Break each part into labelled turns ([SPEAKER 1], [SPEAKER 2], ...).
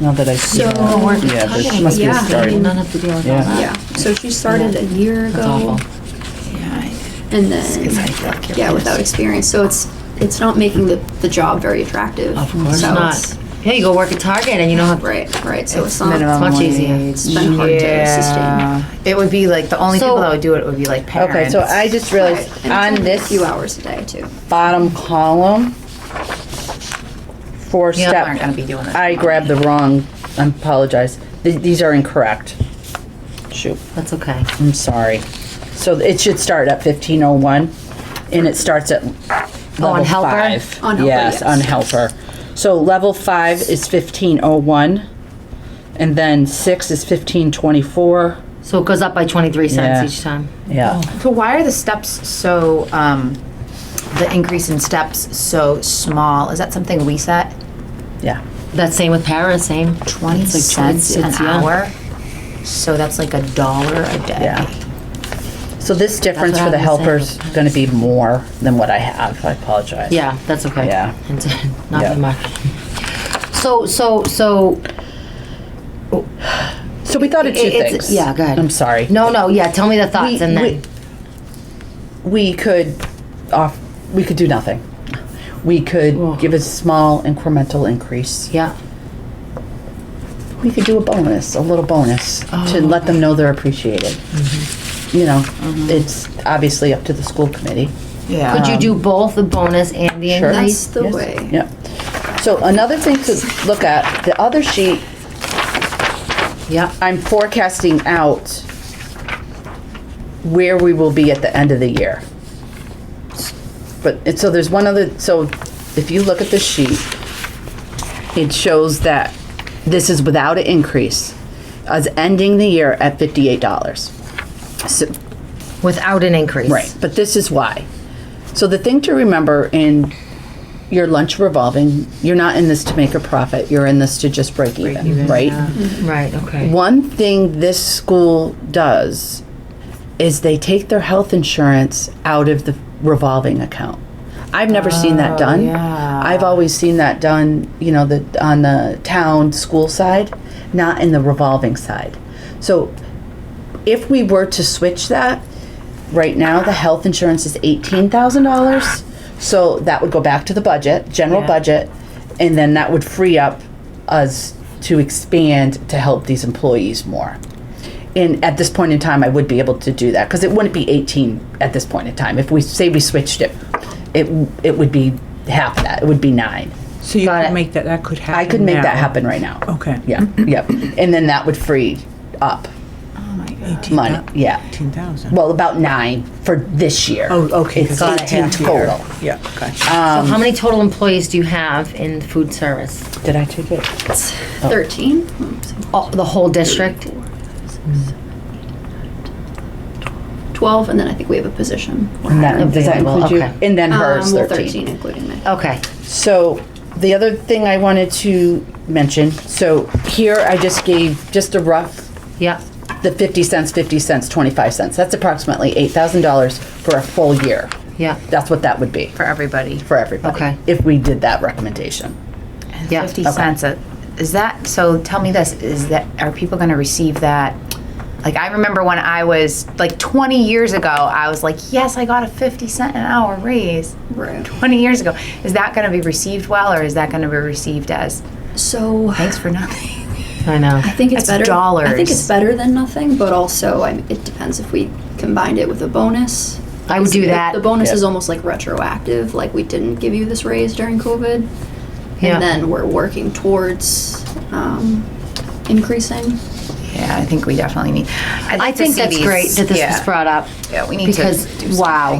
[SPEAKER 1] Now that I see
[SPEAKER 2] So-
[SPEAKER 1] that.
[SPEAKER 2] Oh,
[SPEAKER 3] uh,
[SPEAKER 2] we're
[SPEAKER 1] Yeah, this
[SPEAKER 2] talking,
[SPEAKER 1] must be a
[SPEAKER 2] yeah.
[SPEAKER 1] start.
[SPEAKER 2] Not
[SPEAKER 4] have to deal with
[SPEAKER 1] all Yeah. that.
[SPEAKER 2] Yeah, so she started a year
[SPEAKER 4] That's
[SPEAKER 2] ago
[SPEAKER 4] awful.
[SPEAKER 2] and then, yeah, without experience. So it's, it's not making the, the job very attractive.
[SPEAKER 4] Of course
[SPEAKER 2] So
[SPEAKER 4] not.
[SPEAKER 2] it's-
[SPEAKER 4] Yeah, you go work at Target and you know how.
[SPEAKER 2] Right, right, so it's
[SPEAKER 4] minimum.
[SPEAKER 2] not,
[SPEAKER 4] much easier.
[SPEAKER 2] It's been hard to sustain.
[SPEAKER 3] It would be like, the only
[SPEAKER 4] So-
[SPEAKER 3] people that would do it would be like parents.
[SPEAKER 5] Okay, so I just
[SPEAKER 2] right.
[SPEAKER 5] realized
[SPEAKER 2] And it's
[SPEAKER 5] on
[SPEAKER 2] only a
[SPEAKER 5] this
[SPEAKER 2] Few hours a day too.
[SPEAKER 4] Oh.
[SPEAKER 5] bottom column, four
[SPEAKER 3] You
[SPEAKER 5] step.
[SPEAKER 3] aren't gonna be doing that.
[SPEAKER 5] I grabbed the wrong, I apologize. Th- These are incorrect. Shoot,
[SPEAKER 4] That's okay.
[SPEAKER 5] I'm sorry. So it should start at fifteen oh one and it starts at level
[SPEAKER 4] helper?
[SPEAKER 5] five.
[SPEAKER 2] On helper,
[SPEAKER 5] Yes, on
[SPEAKER 2] yes.
[SPEAKER 5] helper. So level five is fifteen oh one and then six is fifteen twenty-four.
[SPEAKER 4] So it goes up by 23
[SPEAKER 5] Yeah.
[SPEAKER 4] cents each time.
[SPEAKER 5] Yeah.
[SPEAKER 3] So why are the steps so, um, the increase in steps so small? Is that something we set?
[SPEAKER 5] Yeah.
[SPEAKER 4] That's same with para, same.
[SPEAKER 3] Twenty
[SPEAKER 4] It's like
[SPEAKER 3] cents an
[SPEAKER 4] 20 cents, yeah.
[SPEAKER 3] hour? So that's like a dollar a day.
[SPEAKER 5] Yeah. So this difference
[SPEAKER 4] what
[SPEAKER 5] for the
[SPEAKER 4] I was
[SPEAKER 5] helper's gonna be more than what I have, I apologize.
[SPEAKER 4] Yeah, that's okay.
[SPEAKER 5] Yeah.
[SPEAKER 4] And then Not
[SPEAKER 5] Yeah.
[SPEAKER 4] that much. So, so, so,
[SPEAKER 5] So we thought of two
[SPEAKER 4] It- it's-
[SPEAKER 5] things.
[SPEAKER 4] yeah, go ahead.
[SPEAKER 5] I'm sorry.
[SPEAKER 4] no, no, yeah, tell me the
[SPEAKER 5] We-
[SPEAKER 4] thoughts and then.
[SPEAKER 5] We, we could off, we could do nothing. We could give a small incremental increase.
[SPEAKER 4] Yeah,
[SPEAKER 5] We could do a bonus, a little bonus, to let them know they're appreciated. You know, it's obviously up to the school committee.
[SPEAKER 3] Yeah.
[SPEAKER 4] could you do both the bonus and the
[SPEAKER 5] Um, Sure.
[SPEAKER 2] That's
[SPEAKER 4] increase?
[SPEAKER 2] the
[SPEAKER 5] Yes.
[SPEAKER 2] way.
[SPEAKER 5] Yeah. So another thing to look at, the other sheet,
[SPEAKER 4] Yeah,
[SPEAKER 5] I'm forecasting out where we will be at the end of the year. But, and so there's one other, so if you look at the sheet, it shows that this is without an increase, us ending the year at fifty-eight dollars. So,
[SPEAKER 4] without an increase.
[SPEAKER 5] Right, but this is why. So the thing to remember in your lunch revolving, you're not in this to make a profit, you're in this to just break even, Mm-hmm. right?
[SPEAKER 4] Right, okay.
[SPEAKER 5] One thing this school does is they take their health insurance out of the revolving account. I've never seen that done.
[SPEAKER 3] yeah.
[SPEAKER 5] I've always seen that done, you know, the on the town school side, not in the revolving side. So if we were to switch that, right now the health insurance is eighteen thousand dollars. So that would go back to the budget, general
[SPEAKER 3] Yeah.
[SPEAKER 5] budget, and then that would free up us to expand to help these employees more. And at this point in time, I would be able to do that because it wouldn't be eighteen at this point in time. If we say we switched it, it it would be half that. It would be nine.
[SPEAKER 6] So you
[SPEAKER 4] Got
[SPEAKER 6] could
[SPEAKER 4] it.
[SPEAKER 6] make that, that could happen
[SPEAKER 5] I could make
[SPEAKER 6] now.
[SPEAKER 5] that happen right now.
[SPEAKER 6] Okay.
[SPEAKER 5] Yeah. Yep. And then that would free up money. Yeah.
[SPEAKER 6] Eighteen thousand.
[SPEAKER 5] Well, about nine for this year.
[SPEAKER 6] Oh, okay.
[SPEAKER 5] It's
[SPEAKER 6] 'cause
[SPEAKER 5] eighteen
[SPEAKER 6] half year.
[SPEAKER 5] total. Uh,
[SPEAKER 6] Yeah, gotcha.
[SPEAKER 4] So how many total employees do you have in food service?
[SPEAKER 5] Did I take it?
[SPEAKER 2] Thirteen?
[SPEAKER 4] Oh, the whole district?
[SPEAKER 2] Twelve, and then I think we have a position.
[SPEAKER 5] And that- Does that
[SPEAKER 4] Okay, well,
[SPEAKER 5] include you?
[SPEAKER 4] okay.
[SPEAKER 5] And then hers
[SPEAKER 2] Um, well,
[SPEAKER 5] thirteen.
[SPEAKER 2] thirteen including me.
[SPEAKER 4] Okay,
[SPEAKER 5] So the other thing I wanted to mention, so here I just gave just a rough,
[SPEAKER 4] yeah,
[SPEAKER 5] the fifty cents, fifty cents, twenty-five cents. That's approximately eight thousand dollars for a full year.
[SPEAKER 4] yeah,
[SPEAKER 5] That's what that would be
[SPEAKER 3] For everybody.
[SPEAKER 5] for everybody.
[SPEAKER 4] Okay.
[SPEAKER 5] If we did that recommendation.
[SPEAKER 4] Yeah,
[SPEAKER 3] Fifty cents, a- is that, so tell me this, is that, are people gonna receive that? Like, I remember when I was, like, twenty years ago, I was like, yes, I got a fifty cent an hour raise.
[SPEAKER 2] Right.
[SPEAKER 3] Twenty years ago, is that gonna be received well, or is that gonna be received as,
[SPEAKER 2] So
[SPEAKER 3] thanks for nothing?
[SPEAKER 4] I know.
[SPEAKER 2] I think it's
[SPEAKER 3] That's
[SPEAKER 2] better. I think
[SPEAKER 3] dollars.
[SPEAKER 2] it's better than nothing, but also I, it depends if we combined it with a bonus.
[SPEAKER 4] I would do
[SPEAKER 2] The-
[SPEAKER 4] that.
[SPEAKER 2] The bonus is almost like retroactive, like we didn't give you this raise during COVID.
[SPEAKER 4] Yeah.
[SPEAKER 2] And then we're working towards um, increasing.
[SPEAKER 3] Yeah, I think we definitely need.
[SPEAKER 4] I
[SPEAKER 3] like to
[SPEAKER 4] think
[SPEAKER 3] see
[SPEAKER 4] that's
[SPEAKER 3] these-
[SPEAKER 4] great that this was
[SPEAKER 3] yeah.
[SPEAKER 4] brought up.
[SPEAKER 3] Yeah, we need to
[SPEAKER 4] because
[SPEAKER 3] do
[SPEAKER 4] wow,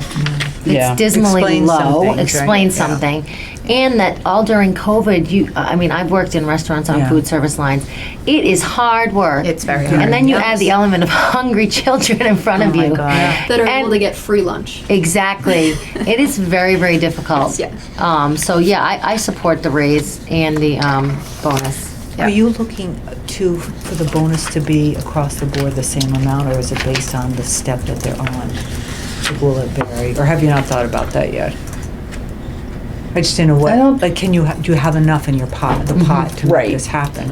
[SPEAKER 5] Yeah.
[SPEAKER 4] it's dismally
[SPEAKER 6] Explain
[SPEAKER 4] low.
[SPEAKER 6] something, right?
[SPEAKER 4] Explain
[SPEAKER 6] Yeah.
[SPEAKER 4] something, and that all during COVID, you. I mean, I've worked in restaurants on
[SPEAKER 6] Yeah.
[SPEAKER 4] food service lines. It is hard work.
[SPEAKER 3] It's very
[SPEAKER 4] And
[SPEAKER 3] hard. Oh
[SPEAKER 4] then you add the element of hungry children in front of
[SPEAKER 3] my
[SPEAKER 4] you.
[SPEAKER 3] God.
[SPEAKER 2] That are
[SPEAKER 4] And-
[SPEAKER 2] able to get free lunch.
[SPEAKER 4] Exactly. it is very, very difficult.
[SPEAKER 2] Yes.
[SPEAKER 4] Um, so yeah, I, I support the raise and the um, bonus.
[SPEAKER 3] Yeah.
[SPEAKER 7] Are you looking to, for the bonus to be across the board the same amount, or is it based on the step that they're on? Will it vary, or have you not thought about that yet? I just didn't know
[SPEAKER 5] I don't-
[SPEAKER 7] what, like, can you, ha- do you have enough in your pot, the pot to
[SPEAKER 5] Right.
[SPEAKER 7] make this happen?